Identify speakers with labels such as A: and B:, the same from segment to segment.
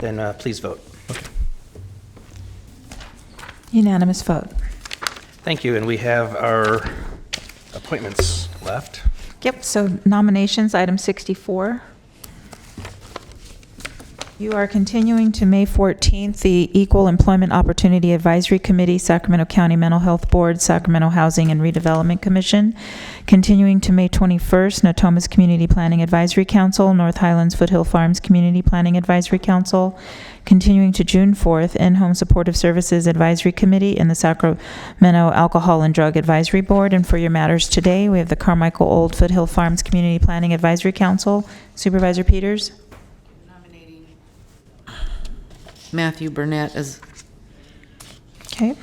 A: then uh, please vote.
B: Unanimous vote.
A: Thank you, and we have our appointments left.
B: Yep, so nominations, item 64. You are continuing to May 14th, the Equal Employment Opportunity Advisory Committee, Sacramento County Mental Health Board, Sacramento Housing and Redevelopment Commission. Continuing to May 21st, Natomas Community Planning Advisory Council, North Highlands Foothill Farms Community Planning Advisory Council. Continuing to June 4th, In-Home Supportive Services Advisory Committee and the Sacramento Alcohol and Drug Advisory Board. And for your matters today, we have the Carmichael Old Foothill Farms Community Planning Advisory Council. Supervisor Peters?
C: Matthew Burnett as,
B: Okay.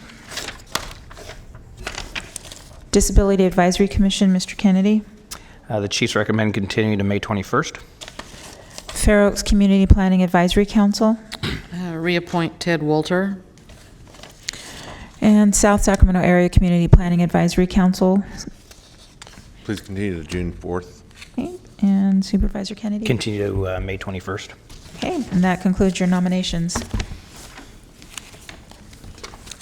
B: Disability Advisory Commission, Mr. Kennedy.
A: Uh, The Chiefs recommend continuing to May 21st.
B: Fair Oaks Community Planning Advisory Council.
C: uh, reappoint Ted Walter.
B: And South Sacramento Area Community Planning Advisory Council.
D: Please continue to June 4th.
B: Okay, And Supervisor Kennedy.
A: Continue to uh, May 21st.
B: Okay, and that concludes your nominations.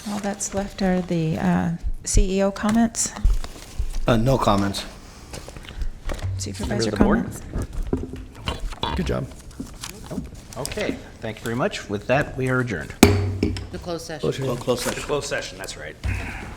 B: All that's left are the uh, CEO comments,
E: Uh, no comments.
B: supervisor
A: the board?
B: comments.
E: Good job.
A: Okay, thank you very much. With that, we are adjourned.
C: The closed session.
E: Close session.
A: Closed session, that's right.